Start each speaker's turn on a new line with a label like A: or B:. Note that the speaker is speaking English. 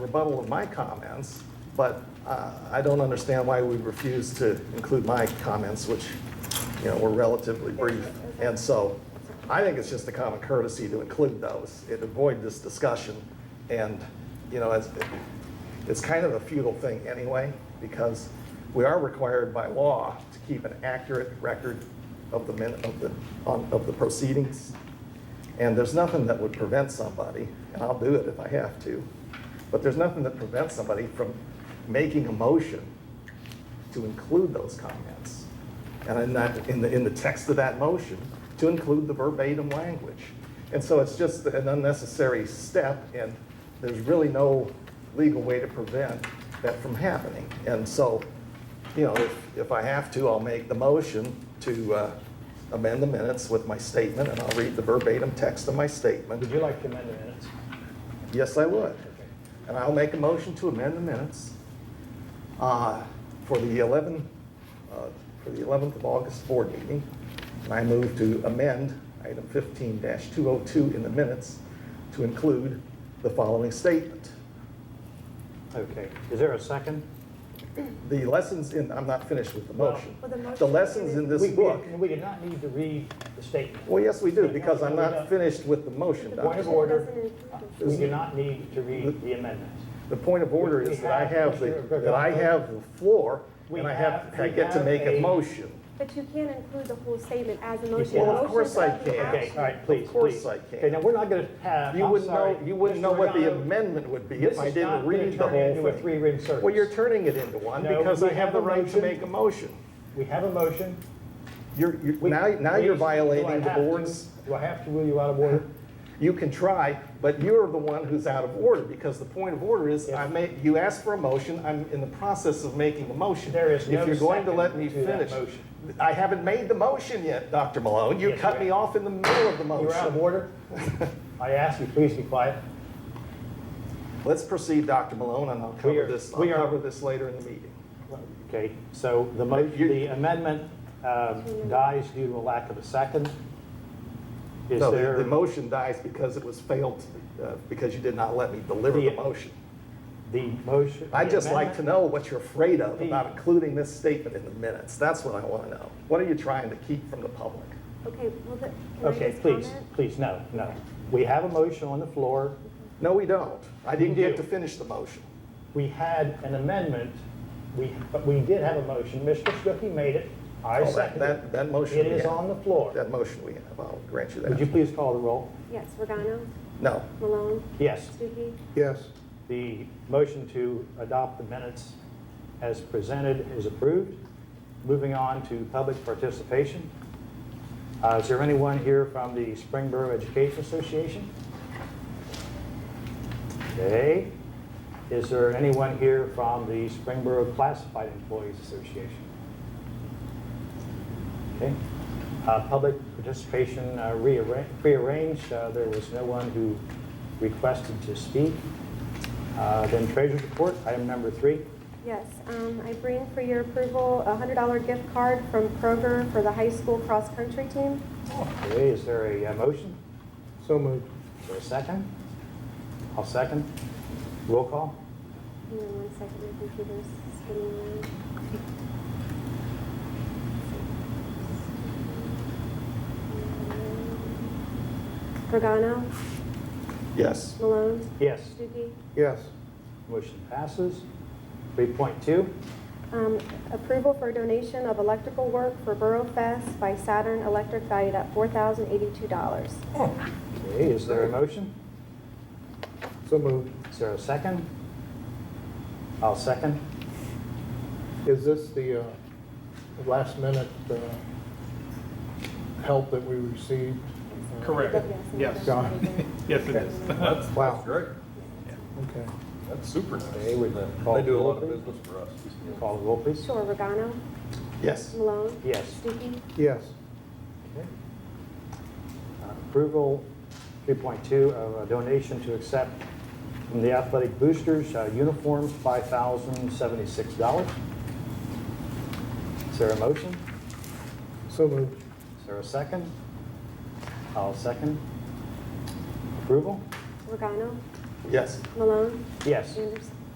A: rebuttal of my comments, but uh, I don't understand why we refuse to include my comments, which, you know, were relatively brief. And so I think it's just a common courtesy to include those and avoid this discussion. And, you know, it's, it's kind of a futile thing anyway, because we are required by law to keep an accurate record of the minute, of the, on- of the proceedings. And there's nothing that would prevent somebody, and I'll do it if I have to, but there's nothing that prevents somebody from making a motion to include those comments. And in that, in the, in the text of that motion, to include the verbatim language. And so it's just an unnecessary step, and there's really no legal way to prevent that from happening. And so, you know, if, if I have to, I'll make the motion to uh, amend the minutes with my statement, and I'll read the verbatim text of my statement.
B: Would you like to amend the minutes?
A: Yes, I would. And I'll make a motion to amend the minutes uh, for the 11, uh, for the 11th of August board meeting. And I move to amend item 15-202 in the minutes to include the following statement.
B: Okay, is there a second?
A: The lessons in, I'm not finished with the
B: Well-
A: motion.
C: Well, the motion
A: The lessons in this
B: We- we-
A: book,
B: We do not need to read the statement.
A: well, yes, we do, because I'm
B: No, no, we
A: not
B: don't.
A: finished with the motion,
B: Point
A: Doctor.
B: of order, Uh,
C: Doesn't include
B: we do not need to read the amendments.
A: The point of order is that I have, the that I have the floor, and I have, I get to make a motion.
C: But you can't include the whole statement as a motion.
B: can.
C: A
B: Well, of
C: motion's
A: course I
C: already
A: can.
B: Okay,
C: action.
B: all right, please,
A: Of course
B: please.
A: I can.
B: Okay, now, we're not going to have,
A: You
B: I'm
A: wouldn't
B: sorry.
A: know, you wouldn't know
B: Mr.
A: what the
B: Regano,
A: amendment would be if
B: this
A: I
B: is
A: didn't
B: not
A: read the
B: gonna turn
A: whole
B: into a
A: thing.
B: three-ring circus.
A: Well, you're turning it into one
B: No,
A: because
B: we
A: I have
B: have
A: the
B: a
A: right to
B: motion.
A: make a motion.
B: We have a motion.
A: You're, you're,
B: We-
A: now, now you're
B: please, do I
A: violating the
B: have to-
A: board's,
B: Do I have to rule you out of order?
A: you can try, but you're the one who's out of order because the point of order is I made, you asked for a motion, I'm in the process of making a motion.
B: There is no
A: If you're going to let me
B: second to that
A: finish.
B: motion.
A: I haven't made the motion yet, Dr. Malone. You
B: Yes, you
A: cut me
B: have.
A: off in the middle of the motion.
B: You're out of order. I ask you, please be quiet.
A: Let's proceed, Dr. Malone, and I'll
B: We
A: cover
B: are-
A: this, I'll
B: we are-
A: cover this later in the meeting.
B: Okay, so the mo,
A: You-
B: the amendment um, dies due to a lack of a second. Is
A: No, the, the
B: there,
A: motion dies because it was failed, uh, because you did not let me deliver the
B: The-
A: motion.
B: the motion?
A: I'd
B: the
A: just like to
B: amendment-
A: know what you're afraid of
B: The-
A: about including this statement in the minutes. That's what I want to know. What are you trying to keep from the public?
C: Okay, well, the- can I
B: Okay,
C: just
B: please,
C: comment?
B: please, no, no. We have a motion on the floor.
A: No, we don't. I didn't
B: You
A: get to
B: do.
A: finish the motion.
B: We had an amendment. We, but we did have a motion. Mr. Stuckey made it. I
A: Oh, that-
B: seconded
A: That,
B: it.
A: that motion.
B: It
A: we
B: is
A: have.
B: on the floor.
A: That motion we have, I'll grant you
B: Would you
A: that.
B: please call the roll?
C: Yes, Regano,
A: No,
C: Malone,
B: Yes.
C: Stuckey,
D: Yes.
B: The motion to adopt the minutes as presented is approved. Moving on to public participation. Uh, Is there anyone here from the Springboro Education Association? Okay. Is there anyone here from the Springboro Classified Employees Association? Okay. Uh, Public participation uh, rearra- prearranged. Uh, There was no one who requested to speak. Uh, Then treasurer's report, item number three.
C: yes. Um, I bring for your approval a hundred dollar gift card from Kroger for the high school cross-country team.
B: Okay, is there a uh, motion?
D: So moved.
B: Is there a second? I'll second. Roll call?
C: Hang on one second, my computer's spinning around. Regano,
A: yes.
C: Malone,
B: Yes.
C: Stuckey,
D: Yes.
B: Motion passes. 3.2,
C: Um, Approval for donation of electrical work for Borough Fest by Saturn Electric valued at $4,082.
B: okay, is there a motion?
D: So moved.
B: Is there a second? I'll second.
D: Is this the uh, last minute uh, help that we received?
E: Correct. Yes. Yes, it is. That's,
D: Wow.
E: great.
D: Okay.
E: That's super nice.
B: Okay, with the call.
E: They do a lot of
B: roll, please.
E: business for us.
B: Call the roll, please.
C: Sure, Regano,
A: Yes.
C: Malone,
B: Yes.
C: Stuckey,
D: Yes.
B: Okay. Uh, Approval 3.2 of a donation to accept from the athletic boosters uh, uniforms, $5,076. Is there a motion?
D: So moved.
B: Is there a second? I'll second. Approval?
C: Regano,
A: Yes.
C: Malone?
B: Yes.
C: Anderson?